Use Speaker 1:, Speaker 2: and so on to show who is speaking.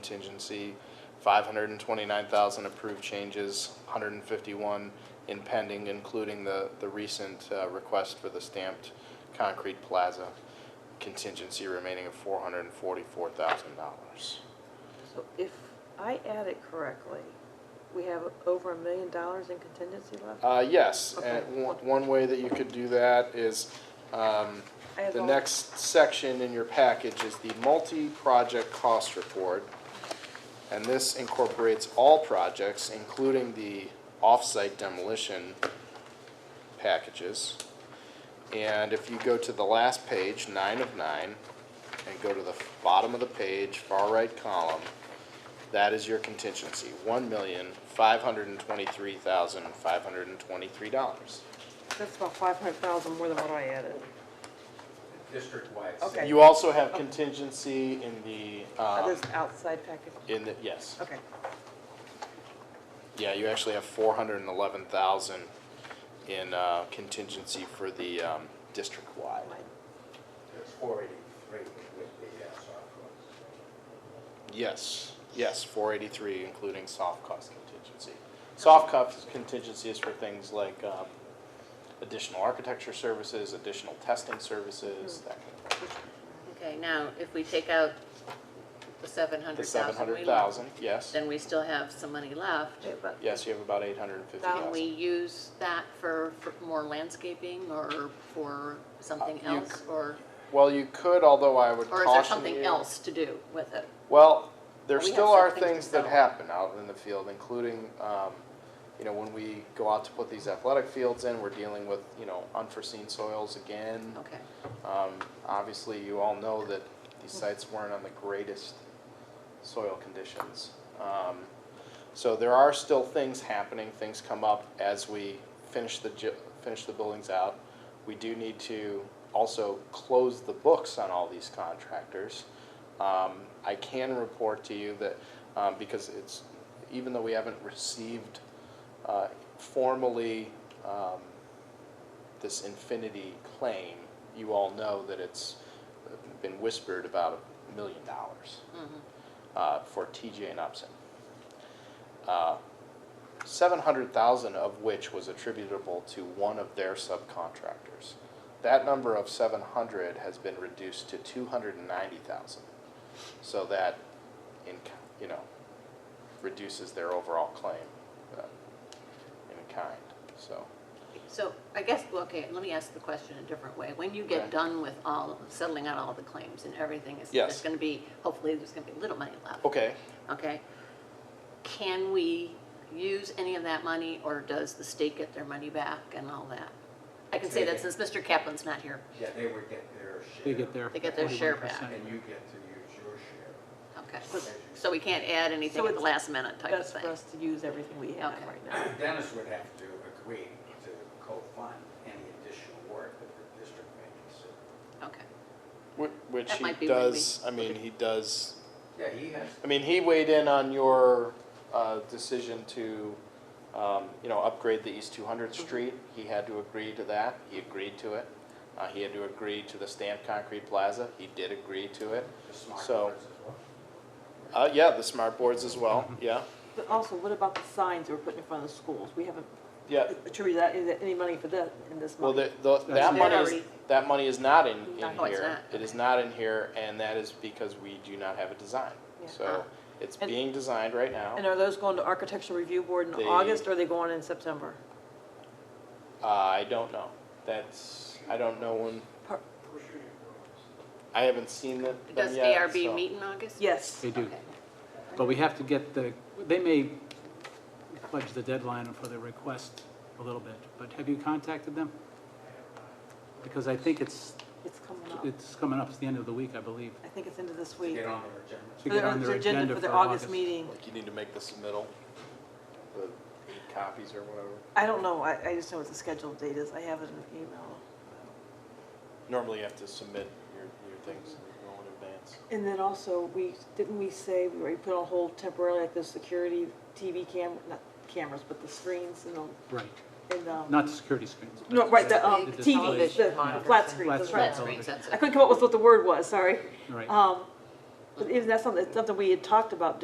Speaker 1: contingency, five hundred and twenty-nine thousand approved changes, hundred and fifty-one in pending, including the, the recent, uh, request for the stamped concrete plaza contingency remaining of four hundred and forty-four thousand dollars.
Speaker 2: So if I add it correctly, we have over a million dollars in contingency left?
Speaker 1: Uh, yes, and
Speaker 2: Okay.
Speaker 1: one, one way that you could do that is, um,
Speaker 2: I have
Speaker 1: the
Speaker 2: all-
Speaker 1: next section in your package is the multi-project cost report. And this incorporates all projects, including the off-site demolition packages. And if you go to the last page, nine of nine, and go to the bottom of the page, far right column, that is your contingency, one million, five hundred and twenty-three thousand, five hundred and twenty-three dollars.
Speaker 2: That's about five hundred thousand more than what I added.
Speaker 3: district-wide.
Speaker 2: Okay.
Speaker 1: You also have contingency in the,
Speaker 2: Uh,
Speaker 1: um,
Speaker 2: This outside package,
Speaker 1: in the, yes.
Speaker 2: okay.
Speaker 1: Yeah, you actually have four hundred and eleven thousand in, uh, contingency for the, um, district-wide.
Speaker 3: It's four eighty-three with the uh, soft
Speaker 1: Yes, yes, four eighty-three, including soft cost contingency. Soft cost contingency is for things like, um, additional architecture services, additional testing
Speaker 4: Hmm.
Speaker 1: services, that kind of.
Speaker 4: Okay, now, if we take out the seven
Speaker 1: The
Speaker 4: hundred
Speaker 1: seven
Speaker 4: thousand we
Speaker 1: hundred
Speaker 4: lost,
Speaker 1: thousand, yes.
Speaker 4: then we still have some money left.
Speaker 2: Yeah, but
Speaker 1: Yes, you have about eight hundred and fifty
Speaker 4: Can
Speaker 1: thousand.
Speaker 4: we use that for, for more landscaping or for something
Speaker 1: Uh, you
Speaker 4: else? Or,
Speaker 1: Well, you could, although I would
Speaker 4: or is there
Speaker 1: caution you.
Speaker 4: something else to do with it?
Speaker 1: Well, there
Speaker 4: We have
Speaker 1: still are
Speaker 4: certain things
Speaker 1: things
Speaker 4: to
Speaker 1: that
Speaker 4: sell.
Speaker 1: happen out in the field, including, um, you know, when we go out to put these athletic fields in, we're dealing with, you know, unforeseen soils again.
Speaker 4: Okay,
Speaker 1: Um, obviously, you all know that these sites weren't on the greatest soil conditions. Um, so there are still things happening, things come up as we finish the, ju- finish the buildings out. We do need to also close the books on all these contractors. Um, I can report to you that, um, because it's, even though we haven't received, uh, formally, um, this infinity claim, you all know that it's been whispered about a million dollars uh, for TJ and Upson. Uh, 700,000 of which was attributable to one of their subcontractors. That number of 700 has been reduced to 290,000. So that, in, you know, reduces their overall claim uh, in kind, so.
Speaker 4: so I guess, well, okay, let me ask the question a different way. When you
Speaker 1: Okay.
Speaker 4: get done with all, settling out all the claims and everything, is,
Speaker 1: Yes.
Speaker 4: there's gonna be, hopefully, there's gonna be little money left.
Speaker 1: Okay,
Speaker 4: Okay. Can we use any of that money, or does the state get their money back and all that? I can say that since Mr. Kaplan's not here.
Speaker 3: Yeah, they would get their share.
Speaker 5: They get their.
Speaker 4: They get their share
Speaker 5: 41%.
Speaker 3: And you get to use your share.
Speaker 4: Okay. So we can't add anything
Speaker 2: So
Speaker 4: at the
Speaker 2: it's
Speaker 4: last minute type of
Speaker 2: best for
Speaker 4: thing?
Speaker 2: us to use everything we have
Speaker 4: Okay.
Speaker 2: right now.
Speaker 3: Dennis would have to agree to co-fund any additional work that the district may consider.
Speaker 4: Okay.
Speaker 1: Wh- Which
Speaker 4: That might
Speaker 1: he
Speaker 4: be when we-
Speaker 1: does, I mean, he does,
Speaker 3: Yeah, he has,
Speaker 1: I mean, he weighed in on your uh, decision to, um, you know, upgrade the East 200th
Speaker 4: Mm-hmm.
Speaker 1: Street. He had to agree to that, he agreed to it. Uh, He had to agree to the stamped concrete plaza, he did agree to it.
Speaker 3: the smart
Speaker 1: So-
Speaker 3: words as well.
Speaker 1: Uh, Yeah, the smart boards as well, yeah.
Speaker 2: But also, what about the signs that we're putting in front of the schools? We haven't
Speaker 1: Yeah,
Speaker 2: attributed that, is there any money for that in this
Speaker 1: well,
Speaker 2: month?
Speaker 1: the- the- that
Speaker 5: That's-
Speaker 1: money is,
Speaker 4: Already-
Speaker 1: that money is not in, in
Speaker 2: Not-
Speaker 4: Oh, it's
Speaker 1: here.
Speaker 4: not.
Speaker 1: It is not in here, and that is because we do not have a design.
Speaker 2: Yeah.
Speaker 1: So it's
Speaker 2: And-
Speaker 1: being designed right now.
Speaker 2: And are those going to architecture review board in
Speaker 1: They-
Speaker 2: August, or are they going in September?
Speaker 1: Uh, I don't know. That's, I don't know when,
Speaker 2: Par-
Speaker 1: I haven't seen the- them
Speaker 4: Does
Speaker 1: yet,
Speaker 4: ARB
Speaker 1: so-
Speaker 4: meet in August?
Speaker 2: Yes,
Speaker 5: They do,
Speaker 4: Okay.
Speaker 5: but we have to get the, they may fudge the deadline for the request a little bit, but have you contacted them? Because I think it's,
Speaker 2: it's coming up.
Speaker 5: it's coming up, it's the end of the week, I believe.
Speaker 2: I think it's into this
Speaker 3: To
Speaker 2: week.
Speaker 3: Get on their agenda.
Speaker 5: To get on
Speaker 2: It's
Speaker 5: their agenda
Speaker 2: for the
Speaker 5: for
Speaker 2: August
Speaker 5: August.
Speaker 2: meeting.
Speaker 1: Like you need to make the submittal, the eight copies or whatever.
Speaker 2: I don't know, I, I just know what the scheduled date is, I have it in an email.
Speaker 1: Normally you have to submit your, your things well in advance.
Speaker 2: And then also, we, didn't we say we were put on hold temporarily, like the security TV cam, not cameras, but the screens and the,
Speaker 5: Right,
Speaker 2: and, um.
Speaker 5: not the security screens.
Speaker 2: No, right, the, um,
Speaker 5: The
Speaker 2: TV, the-
Speaker 5: television
Speaker 2: the flat screen, that's
Speaker 5: Flat
Speaker 2: right.
Speaker 4: Red
Speaker 5: screen.
Speaker 4: screens, that's
Speaker 2: I
Speaker 4: it.
Speaker 2: couldn't come up with what the word was, sorry.
Speaker 5: Right,
Speaker 2: Um, But isn't that something, that's something we had talked about